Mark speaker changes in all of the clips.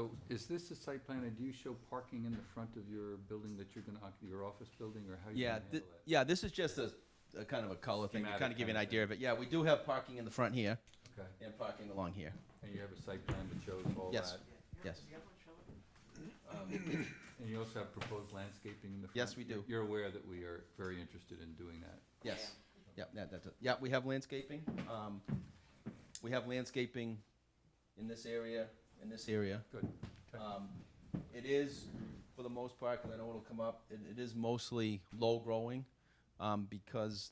Speaker 1: So is this a site plan, and do you show parking in the front of your building that you're gonna, occ- your office building, or how you
Speaker 2: Yeah,
Speaker 1: gonna
Speaker 2: thi-
Speaker 1: handle that?
Speaker 2: yeah, this is just a, a kind of a color thing to
Speaker 1: Schematic
Speaker 2: kind of give you an
Speaker 1: kind of
Speaker 2: idea of it. Yeah, we do have parking in the front here
Speaker 1: Okay,
Speaker 2: and parking along here.
Speaker 1: and you have a site plan that shows all that?
Speaker 2: Yes. Yes.
Speaker 1: Um, And you also have proposed landscaping in the front?
Speaker 2: Yes, we do.
Speaker 1: You're aware that we are very interested in doing that?
Speaker 2: Yes. Yeah, that, that's it. Yeah, we have landscaping. Um, we have landscaping in this area, in this area.
Speaker 1: Good. Okay.
Speaker 2: Um, it is, for the most part, because I know it'll come up, it, it is mostly low growing, um, because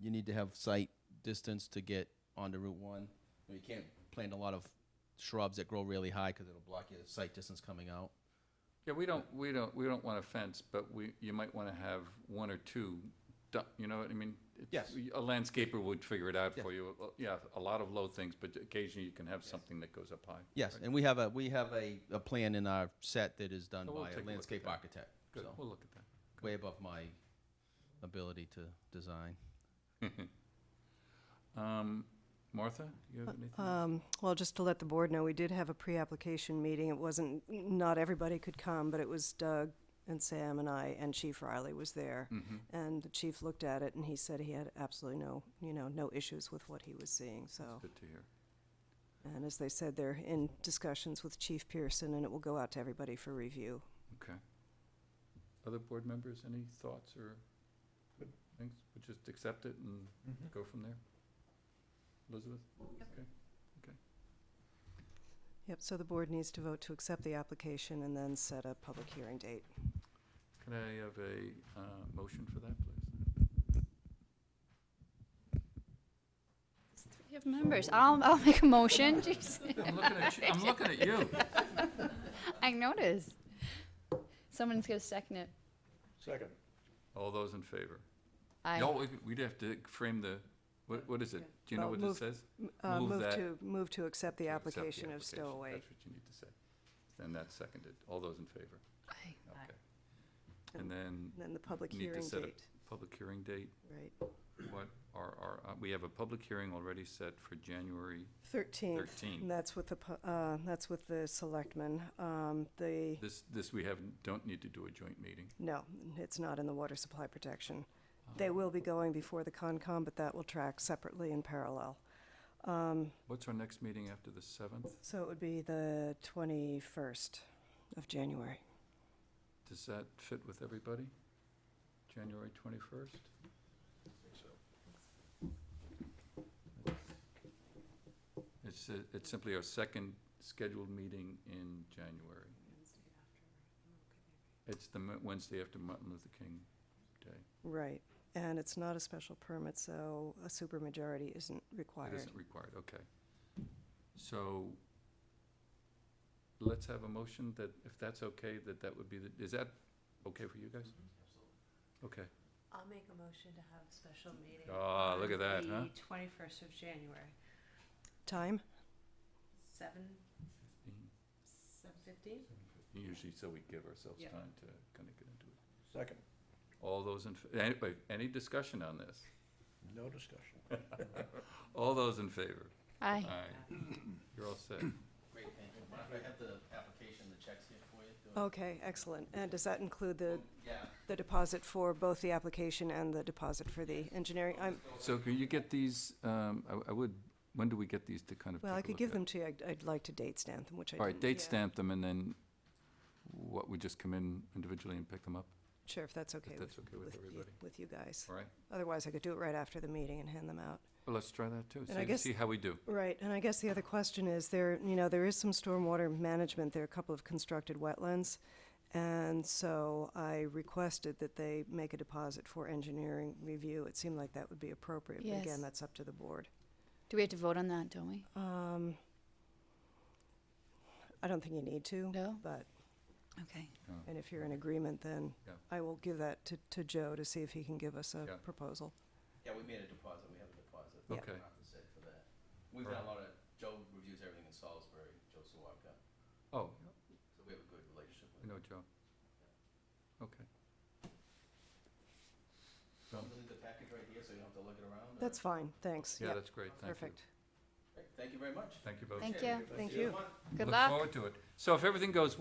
Speaker 2: you need to have site distance to get onto Route One. You can't plant a lot of shrubs that grow really high, because it'll block your sight distance coming out.
Speaker 1: Yeah, we don't, we don't, we don't want a fence, but we, you might wanna have one or two, du- you know what I mean? It's-
Speaker 2: Yes.
Speaker 1: A landscaper would figure it out
Speaker 2: Yeah.
Speaker 1: for you, Uh, yeah, a lot of low things, but occasionally you can have something that goes up high.
Speaker 2: Yes, and we have a, we have a, a plan in our set that is done
Speaker 1: Oh, we'll
Speaker 2: by
Speaker 1: take a
Speaker 2: a
Speaker 1: look at
Speaker 2: landscape
Speaker 1: that.
Speaker 2: architect,
Speaker 1: Good,
Speaker 2: so,
Speaker 1: we'll look at that.
Speaker 2: way above my ability to design.
Speaker 1: Um, Martha, you have anything?
Speaker 3: Um, Well, just to let the board know, we did have a pre-application meeting. It wasn't, not everybody could come, but it was Doug and Sam and I, and Chief Riley was there.
Speaker 1: Mm-hmm.
Speaker 3: And the chief looked at it, and he said he had absolutely no, you know, no issues with what he was seeing, so.
Speaker 1: Good to hear.
Speaker 3: And as they said, they're in discussions with Chief Pearson, and it will go out to everybody for review.
Speaker 1: Okay. Other board members, any thoughts or things? We'll just accept it and
Speaker 3: Mm-hmm.
Speaker 1: go from there? Elizabeth? Okay.
Speaker 3: Yep, so the board needs to vote to accept the application and then set a public hearing date.
Speaker 1: Can I have a, uh, motion for that, please?
Speaker 4: We have members. I'll, I'll make a motion. Jeez,
Speaker 1: I'm looking at you, I'm looking at you.
Speaker 4: I noticed. Someone's gonna second it.
Speaker 5: Second.
Speaker 1: All those in favor?
Speaker 4: I,
Speaker 1: No, we- we'd have to frame the, what, what is it? Do you know
Speaker 3: Well,
Speaker 1: what it
Speaker 3: move-
Speaker 1: says?
Speaker 3: Uh,
Speaker 1: Move that-
Speaker 3: to Move to accept the
Speaker 1: To accept the
Speaker 3: application of
Speaker 1: application.
Speaker 3: Stowaway.
Speaker 1: That's what you need to say. Then that's seconded. All those in favor?
Speaker 4: I,
Speaker 1: Okay. And then,
Speaker 3: And then the public
Speaker 1: Need to
Speaker 3: hearing
Speaker 1: set a-
Speaker 3: date,
Speaker 1: public hearing date,
Speaker 3: right,
Speaker 1: what are our, uh, we have a public hearing already set for January
Speaker 3: 13th. And
Speaker 1: thirteenth.
Speaker 3: that's with the, pu- uh, that's with the selectmen. Um, the,
Speaker 1: This, this we have, don't need to do a joint meeting.
Speaker 3: no, it's not in the water supply protection.
Speaker 1: Oh.
Speaker 3: They will be going before the Concom, but that will track separately in parallel.
Speaker 1: What's our next meeting after the seventh?
Speaker 3: So it would be the twenty-first of January.
Speaker 1: Does that fit with everybody? January twenty-first? It's, uh, it's simply our second scheduled meeting in January. It's the Mo- Wednesday after Martin Luther King Day.
Speaker 3: Right, and it's not a special permit, so a supermajority isn't
Speaker 1: It
Speaker 3: required.
Speaker 1: isn't required, okay. So let's have a motion that, if that's okay, that that would be, the is that okay for you guys? Okay,
Speaker 6: I'll make a motion to have a special meeting.
Speaker 1: Ah, look at
Speaker 6: on
Speaker 1: that, huh?
Speaker 6: The twenty-first of January,
Speaker 3: Time?
Speaker 6: seven, seven fifteen?
Speaker 1: usually so we give ourselves
Speaker 6: Yeah.
Speaker 1: time to kind of get into it.
Speaker 5: Second.
Speaker 1: All those in, f- anyway, any discussion on this?
Speaker 5: No discussion.
Speaker 1: All those in favor?
Speaker 4: I,
Speaker 1: Aye. You're all set.
Speaker 2: Great, thank you. Oh. Mark, I have the application, the checks here for you?
Speaker 3: Okay, excellent. And does that include the,
Speaker 2: Yeah.
Speaker 3: the deposit for both the application and the deposit for the engineering? I'm,
Speaker 1: So can you get these, um, I, I would, when do we get these to kind of
Speaker 3: Well, I
Speaker 1: take a
Speaker 3: could
Speaker 1: look
Speaker 3: give
Speaker 1: at?
Speaker 3: them to you. I'd, I'd like to date stamp them, which I
Speaker 1: All
Speaker 3: didn't.
Speaker 1: right, date stamp them and then what, we just come in individually and pick them up?
Speaker 3: Sure, if that's okay
Speaker 1: If
Speaker 3: with,
Speaker 1: that's okay with
Speaker 3: with you,
Speaker 1: everybody,
Speaker 3: with you guys.
Speaker 1: all right?
Speaker 3: Otherwise, I could do it right after the meeting and hand them out.
Speaker 1: Well, let's try that too,
Speaker 3: And I
Speaker 1: see,
Speaker 3: guess-
Speaker 1: see how we do.
Speaker 3: Right, and I guess the other question is, there, you know, there is some stormwater management. There are a couple of constructed wetlands. And so I requested that they make a deposit for engineering review. It seemed like that would be appropriate. But
Speaker 4: Yes.
Speaker 3: again, that's up to the board.
Speaker 4: do we have to vote on that, don't we?
Speaker 3: Um, I don't think you need to.
Speaker 4: No?
Speaker 3: But
Speaker 4: Okay.
Speaker 3: And if you're in agreement, then
Speaker 1: Yeah.
Speaker 3: I will give that to, to Joe to see if he can give us a
Speaker 1: Yeah.
Speaker 3: proposal.
Speaker 2: Yeah, we made a deposit, we have a deposit.
Speaker 1: Yeah. Okay.
Speaker 2: Not to say for that. We've done a lot of, Joe reviews everything in Salisbury, Joe Sawaka,
Speaker 1: Oh,
Speaker 2: so we have a good relationship
Speaker 1: I
Speaker 2: with him.
Speaker 1: know Joe. Okay.
Speaker 2: I'm gonna leave the package right here, so you don't have to look it around. or-
Speaker 3: That's fine, thanks.
Speaker 1: Yeah,
Speaker 3: Yep,
Speaker 1: that's great, thank you.
Speaker 3: Perfect.
Speaker 2: Great, Thank you very much.
Speaker 1: Thank you both.
Speaker 4: Thank you.
Speaker 3: Thank you.
Speaker 4: Good
Speaker 1: Look
Speaker 4: luck.
Speaker 1: forward to it. So if everything goes